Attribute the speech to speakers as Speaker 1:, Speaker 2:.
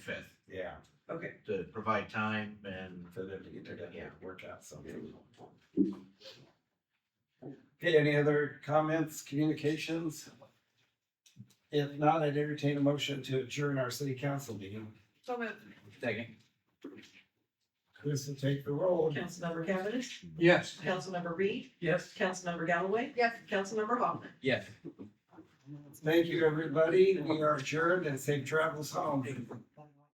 Speaker 1: fifth
Speaker 2: Yeah,
Speaker 3: Okay,
Speaker 1: to provide time and
Speaker 2: for them to get their deadline,
Speaker 1: Yeah.
Speaker 2: work out something. Okay, any other comments, communications? If not, I'd entertain a motion to adjourn our city council meeting.
Speaker 3: so moved.
Speaker 1: second.
Speaker 2: Who's to take the roll?
Speaker 3: Councilmember Cavanagh,
Speaker 1: Yes.
Speaker 3: Councilmember Reed,
Speaker 1: Yes.
Speaker 3: Councilmember Galloway. Yes. Councilmember Hoffman.
Speaker 1: Yes.
Speaker 2: Thank you, everybody. We are adjourned and safe travels home.